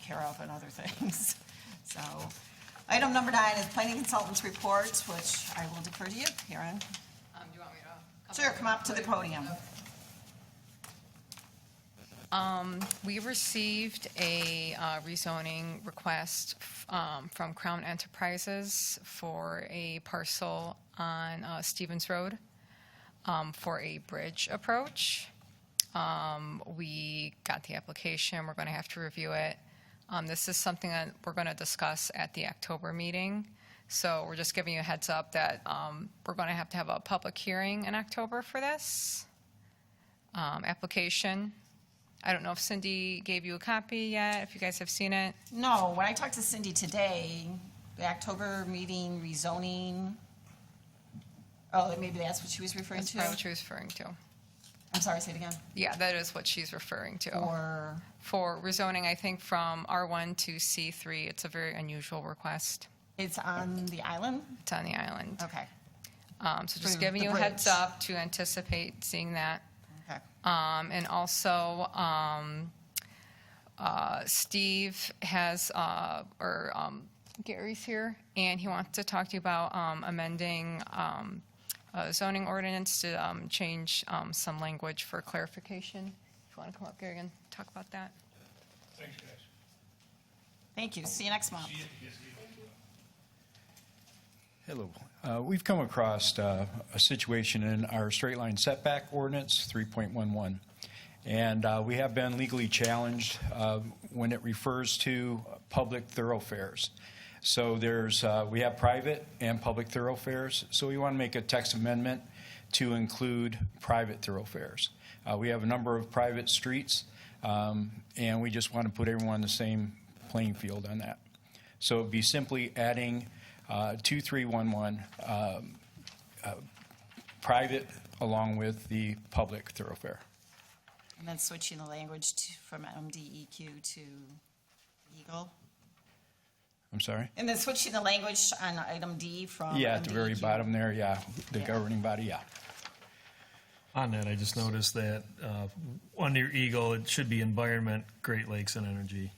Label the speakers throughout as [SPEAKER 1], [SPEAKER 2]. [SPEAKER 1] care of and other things. So, item number nine is planning consultants' reports, which I will defer to you, Karen.
[SPEAKER 2] Um, do you want me to?
[SPEAKER 1] Sure, come up to the podium.
[SPEAKER 2] We received a uh, rezoning request um, from Crown Enterprises for a parcel on uh, Stevens Road um, for a bridge approach. Um, We got the application, we're going to have to review it. Um, This is something that we're going to discuss at the October meeting. So we're just giving you a heads up that um, we're going to have to have a public hearing in October for this um, application. I don't know if Cindy gave you a copy yet, if you guys have seen it.
[SPEAKER 1] No, when I talked to Cindy today, the October meeting rezoning, oh, maybe that's what she was referring
[SPEAKER 2] That's probably what
[SPEAKER 1] to?
[SPEAKER 2] she was referring to.
[SPEAKER 1] I'm sorry, say it again.
[SPEAKER 2] Yeah, that is what she's referring to.
[SPEAKER 1] Or,
[SPEAKER 2] For rezoning, I think, from R1 to C3, it's a very unusual request.
[SPEAKER 1] it's on the island?
[SPEAKER 2] It's on the island.
[SPEAKER 1] Okay,
[SPEAKER 2] Um, So just
[SPEAKER 1] For
[SPEAKER 2] giving
[SPEAKER 1] the
[SPEAKER 2] you a heads
[SPEAKER 1] bridge.
[SPEAKER 2] up to anticipate seeing that.
[SPEAKER 1] okay.
[SPEAKER 2] Um, and also, um, uh, Steve has, uh, or, um, Gary's here, and he wants to talk to you about, um, amending, um, uh, zoning ordinance to, um, change, um, some language for clarification. If you want to come up, Gary, and talk about that.
[SPEAKER 3] Thanks, guys.
[SPEAKER 1] Thank you, see you next month.
[SPEAKER 4] Hello. Uh, We've come across uh, a situation in our straight line setback ordinance, 3.11. And uh, we have been legally challenged uh, when it refers to public thoroughfares. So there's, uh, we have private and public thoroughfares, so we want to make a text amendment to include private thoroughfares. Uh, We have a number of private streets, um, and we just want to put everyone on the same playing field on that. So it'd be simply adding uh, 2311, um, uh, private along with the public thoroughfare.
[SPEAKER 1] And then switching the language to, from MDEQ to Eagle.
[SPEAKER 4] I'm sorry?
[SPEAKER 1] And then switching the language on item D E from.
[SPEAKER 4] Yeah, at the very
[SPEAKER 1] MDEQ.
[SPEAKER 4] bottom there, yeah, the
[SPEAKER 1] Yeah.
[SPEAKER 4] governing body, yeah.
[SPEAKER 5] On that, I just noticed that uh, under Eagle, it should be environment, Great Lakes, and energy.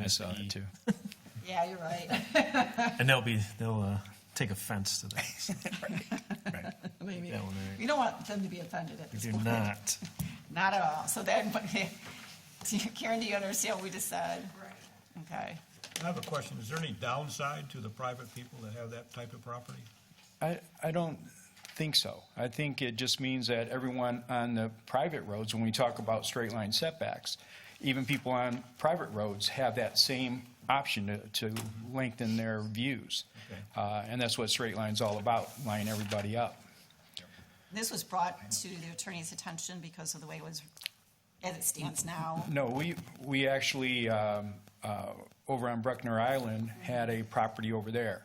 [SPEAKER 4] I saw that too.
[SPEAKER 1] Yeah, you're right.
[SPEAKER 5] And they'll be, they'll uh, take offense to that. so
[SPEAKER 1] Maybe.
[SPEAKER 5] that one there.
[SPEAKER 1] We don't want them to be offended at
[SPEAKER 5] If
[SPEAKER 1] this
[SPEAKER 5] you're
[SPEAKER 1] point.
[SPEAKER 5] not,
[SPEAKER 1] Not at all. So then, what- do you- Karen, do you understand what we just said? Right. Okay.
[SPEAKER 3] I have a question. Is there any downside to the private people that have that type of property?
[SPEAKER 4] I, I don't think so. I think it just means that everyone on the private roads, when we talk about straight line setbacks, even people on private roads have that same option to, to lengthen their views.
[SPEAKER 3] Okay.
[SPEAKER 4] Uh, and that's what straight line's all about, line everybody up.
[SPEAKER 1] This was brought to the attorney's attention because of the way it was, as it stands now.
[SPEAKER 4] No, we, we actually, um, uh, over on Bruckner Island, had a property over there.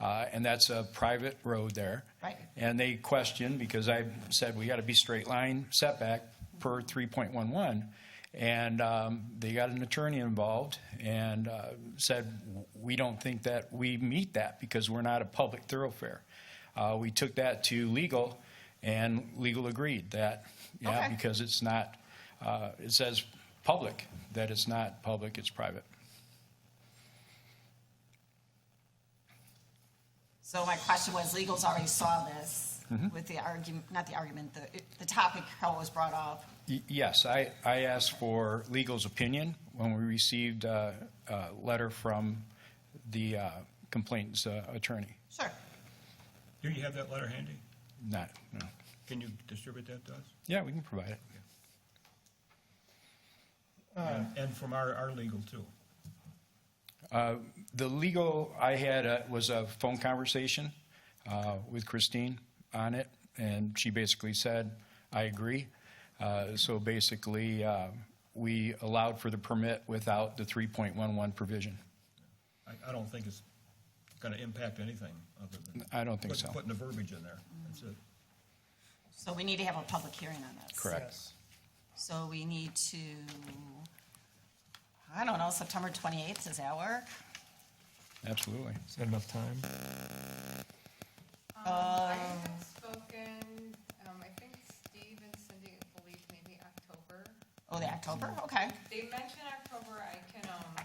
[SPEAKER 4] Uh, And that's a private road there.
[SPEAKER 1] Right.
[SPEAKER 4] And they questioned, because I said, we got to be straight line setback per 3.11. And um, they got an attorney involved and uh, said, we don't think that we meet that because we're not a public thoroughfare. Uh, We took that to legal, and legal agreed that, yeah,
[SPEAKER 1] Okay.
[SPEAKER 4] because it's not, uh, it says public, that it's not public, it's private.
[SPEAKER 1] So my question was, legal's already saw this
[SPEAKER 4] Mm-hmm.
[SPEAKER 1] with the argument, not the argument, the, the topic how it was brought up.
[SPEAKER 4] Y- Yes, I, I asked for legal's opinion when we received uh, a letter from the uh, complaint's uh, attorney.
[SPEAKER 1] Sure.
[SPEAKER 3] Do you have that letter handy?
[SPEAKER 4] Not, no.
[SPEAKER 3] Can you distribute that to us?
[SPEAKER 4] Yeah, we can provide it.
[SPEAKER 3] And- And from our, our legal too?
[SPEAKER 4] The legal I had uh, was a phone conversation uh, with Christine on it, and she basically said, I agree. Uh, So basically, uh, we allowed for the permit without the 3.11 provision.
[SPEAKER 3] I, I don't think it's gonna impact anything other than.
[SPEAKER 4] I don't think
[SPEAKER 3] put-
[SPEAKER 4] so.
[SPEAKER 3] Putting the verbiage in there. That's it.
[SPEAKER 1] So we need to have a public hearing on this.
[SPEAKER 4] Correct.
[SPEAKER 1] So we need to, I don't know, September 28th, does that work?
[SPEAKER 4] Absolutely.
[SPEAKER 5] is that enough time?
[SPEAKER 2] I have spoken, um, I think Steve and Cindy believe maybe October.
[SPEAKER 1] Oh, the October, okay.
[SPEAKER 2] They mentioned October, I can, um,